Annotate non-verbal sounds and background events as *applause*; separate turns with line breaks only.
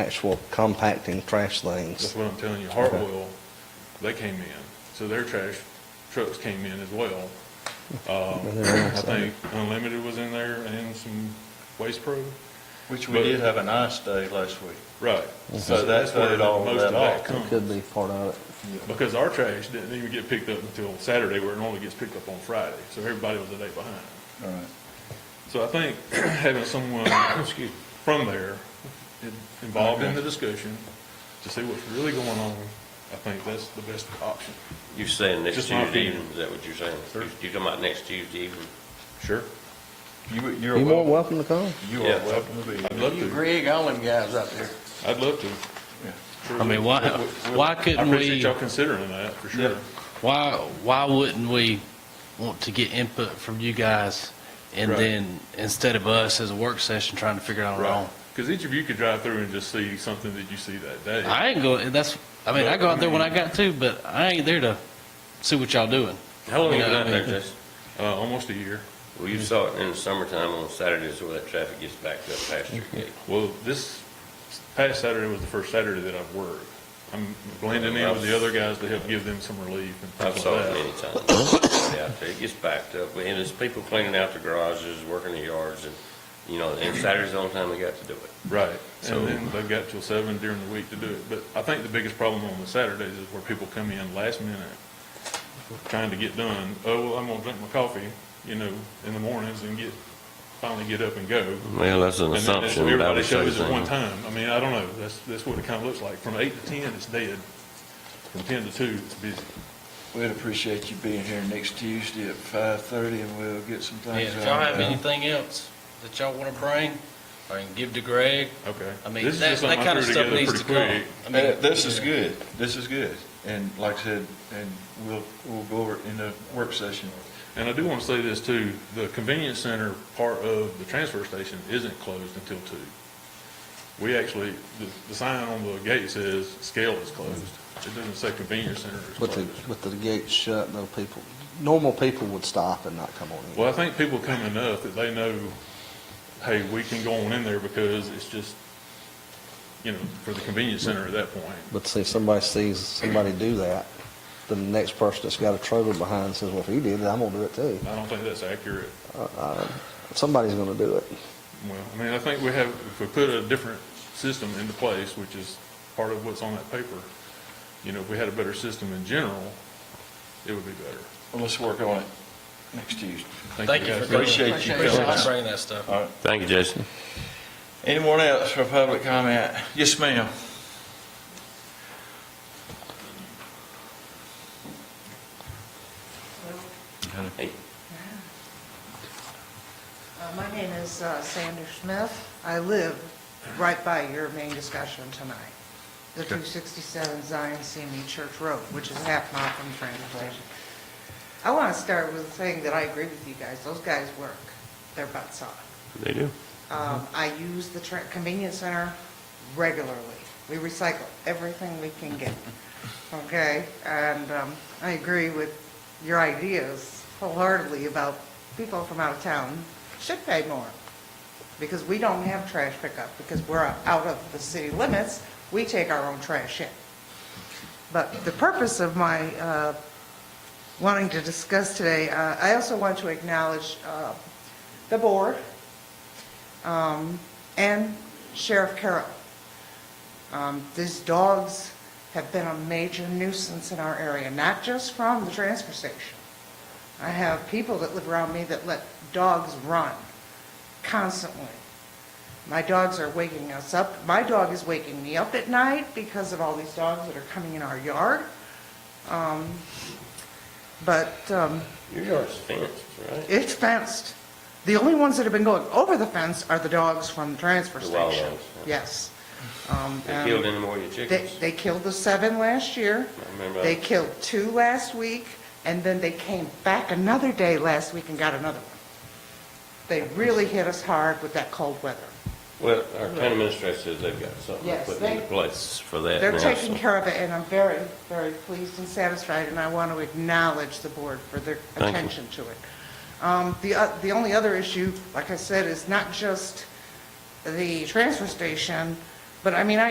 actual compacting trash
That's
things.
what I'm telling you,
Okay.
Hartwell, they came in, so their trash trucks came in as well. Uh,
And they're
I
outside.
think Unlimited was in there and some Waste Pro,
Which
But-
we did have an ice day last week.
right.
So that
that's where
voted all
most
that
of that
off.
comes.
Mm-hmm. Could be part of it.
Because our trash didn't even get picked up until Saturday, where it normally gets picked up on Friday, so everybody was a day behind.
All right.
So I think *clears throat* having someone, excuse, me, from there in- involved in the discussion to see what's really going on, I think that's the best option.
You're saying next
Just my
Tuesday
opinion.
evening, is that what you're saying?
Sure.
You're talking about next Tuesday evening?
Sure.
You, you're
You're more welcome
welcome.
to come.
You
Yeah.
are welcome to be
I'd
here.
love to,
Greg, all them guys out there.
I'd love to.
Yeah.
Sure
I mean,
would.
why,
We'll-
why
I
couldn't
appreciate
we,
y'all considering that, for sure.
why, why wouldn't we want to get input from you guys? And
Right.
then, instead of us as a work session trying to figure it out our own.
Because each of you could drive through and just see something that you see that day.
I ain't go, that's, I mean, I go out there when I got to, but I ain't there to see what y'all doing.
How long you
Yeah,
been
I
out there,
mean-
Jason?
Uh, almost a year.
Well, you saw it in the summertime on Saturdays where that traffic gets backed up past your gate.
Well, this past Saturday was the first Saturday that I've worked. I'm blending in with the other guys to help give them some relief and
I've
things
saw
like
it
that.
many
*coughs*
times. Yeah, out there. It gets backed up, and there's people cleaning out the garages, working the yards, and, you know, and Saturday's the only time they got to do it.
Right,
So-
and then they've got till seven during the week to do it, but I think the biggest problem on the Saturdays is where people come in last minute, trying to get done, oh, well, I'm gonna drink my coffee, you know, in the mornings and get, finally get up and go.
Well, that's an
And then that's-
assumption.
Everybody shows at one time, I mean, I don't know, that's, that's what it kinda looks like, from eight to ten, it's dead, from ten to two, it's busy.
We'd appreciate you being here next Tuesday at five thirty and we'll get some
Yeah,
things.
if y'all have
ironed out.
anything else that y'all wanna bring, or can give to Greg,
Okay.
I mean,
This is
that,
just something
that
I
kinda
threw
stuff
together
needs to
pretty
come.
quick.
I mean,
Uh, This is
yeah.
good. This is good. And like I said, and we'll, we'll go over it in the work session.
And I do want to say this too, the convenience center part of the transfer station isn't closed until two. We actually, the, the sign on the gate says scale is closed. It doesn't say convenience center is
With the,
closed.
with the gates shut, though, people, normal people would stop and not come on in.
Well, I think people come enough that they know, hey, we can go on in there because it's just, you know, for the convenience center at that point.
But see, if somebody sees somebody do that, then the next person that's got a trailer behind says, well, if he did it, I'm gonna do it too.
I don't think that's accurate.
Somebody's gonna do it.
Well, I mean, I think we have, if we put a different system into place, which is part of what's on that paper, you know, if we had a better system in general, it would be better.
Well, let's work on it next Tuesday.
Thank you
guys.
for coming.
Appreciate you.
Appreciate you bringing that stuff.
All right.
Thank you, Jason.
Anyone else for public comment? Yes, ma'am.
Hey,
Uh, My name is uh, Sandra Smith. I live right by your main discussion tonight, the 267 Zion CME Church Road, which is a half mile from the train station. I want to start with saying that I agree with you guys. Those guys work their butts off.
they do.
Um, I use the tra- convenience center regularly. We recycle everything we can get, okay? And um, I agree with your ideas wholeheartedly about people from out of town should pay more, because we don't have trash pickup, because we're out of the city limits, we take our own trash in. But the purpose of my uh, wanting to discuss today, uh, I also want to acknowledge uh, the board um, and Sheriff Carroll. Um, These dogs have been a major nuisance in our area, not just from the transfer station. I have people that live around me that let dogs run constantly. My dogs are waking us up. My dog is waking me up at night because of all these dogs that are coming in our yard. Um, But um,
Your yard's fenced, right?
it's fenced. The only ones that have been going over the fence are the dogs from the transfer
The wild
station.
ones, yeah.
Yes. Um,
They
and
killed any more of your
They,
chickens?
they killed the seven last year.
I remember
They
that.
killed two last week, and then they came back another day last week and got another one. They really hit us hard with that cold weather.
Well, our county administrator says they've got something
Yes,
put
they-
into place for that
They're
now,
taking
so-
care of it, and I'm very, very pleased and satisfied, and I want to acknowledge the board for their
you.
attention to it. Um, The, o- the only other issue, like I said, is not just the transfer station, but I mean, I.